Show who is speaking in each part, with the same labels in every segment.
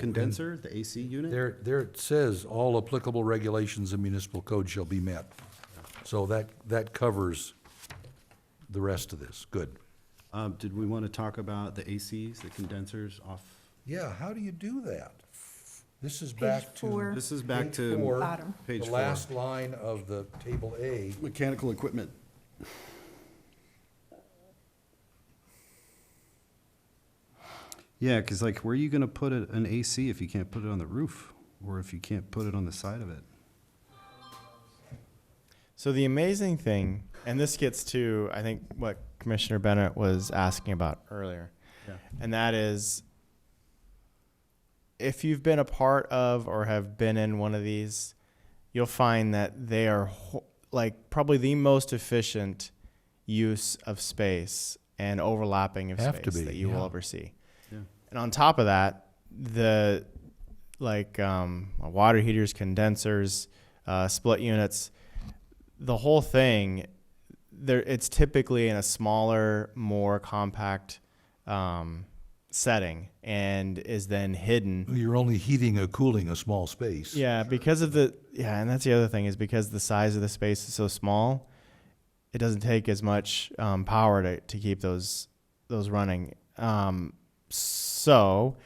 Speaker 1: condenser, the AC unit?
Speaker 2: Oh, There, there it says, all applicable regulations and municipal code shall be met. So that, that covers the rest of this, good.
Speaker 1: Um, Did we want to talk about the ACs, the condensers off?
Speaker 2: Yeah, how do you do that? This is
Speaker 3: Page
Speaker 2: back to.
Speaker 3: four.
Speaker 1: This is back
Speaker 2: page
Speaker 1: to
Speaker 2: four,
Speaker 3: Bottom.
Speaker 1: page
Speaker 2: The
Speaker 1: four.
Speaker 2: last line of the table A,
Speaker 1: Mechanical equipment. Yeah, because like, where are you going to put it- an AC if you can't put it on the roof? Or if you can't put it on the side of it?
Speaker 4: So the amazing thing, and this gets to I think what Commissioner Bennett was asking about earlier,
Speaker 1: Yeah.
Speaker 4: and that is if you've been a part of or have been in one of these, you'll find that they are ho- like probably the most efficient use of space and overlapping of
Speaker 2: Have to
Speaker 4: space
Speaker 2: be,
Speaker 4: that you will
Speaker 2: yeah.
Speaker 4: ever see.
Speaker 1: Yeah.
Speaker 4: And on top of that, the like um, water heaters, condensers, uh, split units, the whole thing, there it's typically in a smaller, more compact um, setting and is then hidden.
Speaker 2: you're only heating or cooling a small space.
Speaker 4: Yeah, because of the yeah, and that's the other thing is because the size of the space is so small, it doesn't take as much um, power to, to keep those those running. Um, so,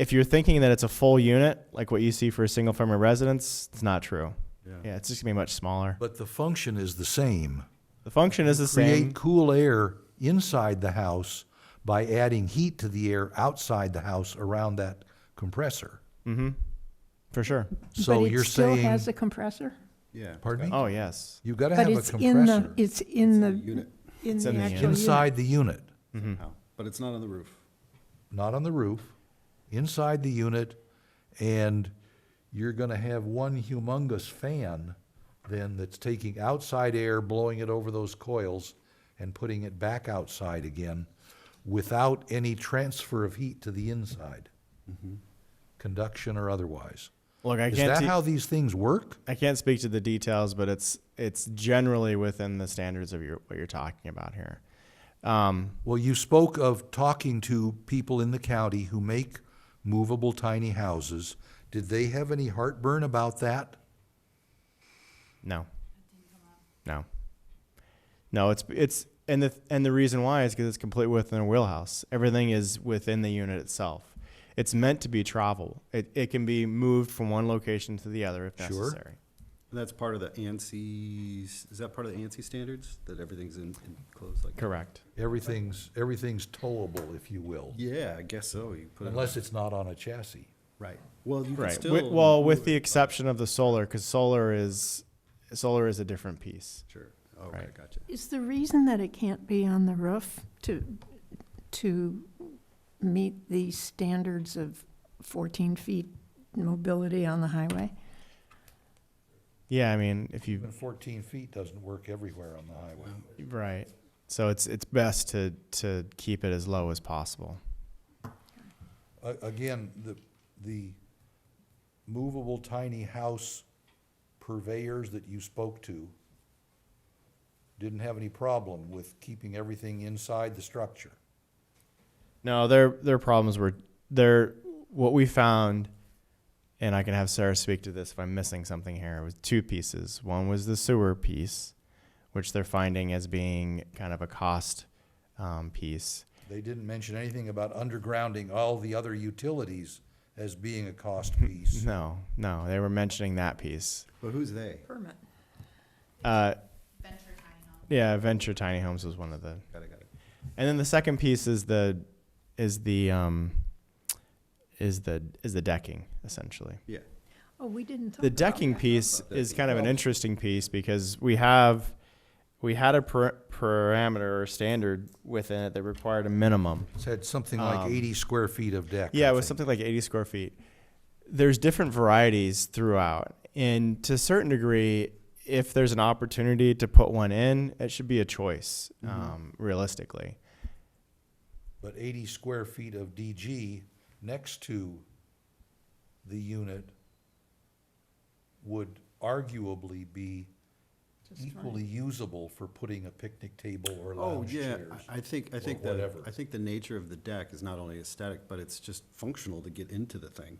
Speaker 4: if you're thinking that it's a full unit like what you see for a single family residence, it's not true.
Speaker 1: Yeah.
Speaker 4: Yeah, it's just gonna be much smaller.
Speaker 2: But the function is the same.
Speaker 4: The function is the same.
Speaker 2: Create cool air inside the house by adding heat to the air outside the house around that compressor.
Speaker 4: For sure.
Speaker 2: So you're
Speaker 3: But it still
Speaker 2: saying,
Speaker 3: has a compressor?
Speaker 1: Yeah.
Speaker 2: pardon me?
Speaker 4: Oh, yes.
Speaker 2: You've got to
Speaker 3: But
Speaker 2: have a
Speaker 3: it's in the,
Speaker 2: compressor
Speaker 3: it's in the,
Speaker 1: Unit,
Speaker 3: in
Speaker 4: It's
Speaker 3: the
Speaker 4: in the
Speaker 3: actual
Speaker 4: unit.
Speaker 3: unit.
Speaker 2: inside the unit,
Speaker 1: somehow, but it's not on the roof.
Speaker 2: not on the roof, inside the unit, and you're going to have one humongous fan then that's taking outside air, blowing it over those coils, and putting it back outside again without any transfer of heat to the inside, conduction or otherwise.
Speaker 4: Look, I
Speaker 2: Is
Speaker 4: can't.
Speaker 2: that
Speaker 4: te-
Speaker 2: how these things work?
Speaker 4: I can't speak to the details, but it's it's generally within the standards of your what you're talking about here. Um,
Speaker 2: Well, you spoke of talking to people in the county who make movable tiny houses. Did they have any heartburn about that?
Speaker 4: no, no, no. It's it's and the and the reason why is because it's completely within the wheelhouse. Everything is within the unit itself. It's meant to be travel. It it can be moved from one location to the other if
Speaker 2: Sure.
Speaker 4: necessary.
Speaker 1: That's part of the ANSI's, is that part of the ANSI standards, that everything's in, enclosed like?
Speaker 4: Correct.
Speaker 2: Everything's, everything's towable, if you will,
Speaker 1: Yeah, I guess so, you put it, on-
Speaker 2: unless it's not on a chassis.
Speaker 1: right, well, you can
Speaker 4: Right.
Speaker 1: still.
Speaker 4: Wi- well, with
Speaker 1: move
Speaker 4: the
Speaker 1: it.
Speaker 4: exception of the solar, because solar is solar is a different piece.
Speaker 1: Sure, okay,
Speaker 4: Right.
Speaker 1: Oh, gotcha.
Speaker 3: Is the reason that it can't be on the roof to, to meet the standards of 14 feet mobility on the highway?
Speaker 4: Yeah, I mean, if you
Speaker 2: Even fourteen feet doesn't work everywhere on the highway.
Speaker 4: Right. So it's it's best to to keep it as low as possible.
Speaker 2: A- Again, the, the movable tiny house purveyors that you spoke to didn't have any problem with keeping everything inside the structure.
Speaker 4: No, their their problems were their what we found, and I can have Sarah speak to this if I'm missing something here. Was two pieces. One was the sewer piece, which they're finding as being kind of a cost um, piece.
Speaker 2: They didn't mention anything about undergrounding all the other utilities as being a cost piece.
Speaker 4: No, no, they were mentioning that piece.
Speaker 1: But who's they?
Speaker 3: Permit.
Speaker 4: Uh,
Speaker 5: venture tiny home.
Speaker 4: yeah, Venture Tiny Homes was one of the
Speaker 1: Got it, got it.
Speaker 4: And then the second piece is the is the um is the is the decking essentially.
Speaker 1: Yeah,
Speaker 3: Oh, we didn't talk
Speaker 4: The
Speaker 3: about
Speaker 4: decking
Speaker 3: that.
Speaker 4: piece
Speaker 1: About
Speaker 4: is
Speaker 1: decking.
Speaker 4: kind of an interesting piece because we have we had a per- parameter or standard within it that required a minimum.
Speaker 2: It Said something like
Speaker 4: Um,
Speaker 2: eighty square feet of deck.
Speaker 4: Yeah,
Speaker 2: I
Speaker 4: it was
Speaker 2: think.
Speaker 4: something like 80 square feet. There's different varieties throughout. And to a certain degree, if there's an opportunity to put one in, it should be a choice, um, realistically.
Speaker 2: But eighty square feet of DG next to the unit would arguably be equally usable for putting a picnic table or
Speaker 1: oh,
Speaker 2: lounge
Speaker 1: yeah,
Speaker 2: chairs.
Speaker 1: I I think, I
Speaker 2: or
Speaker 1: think the,
Speaker 2: whatever.
Speaker 1: I think the nature of the deck is not only aesthetic, but it's just functional to get into the thing.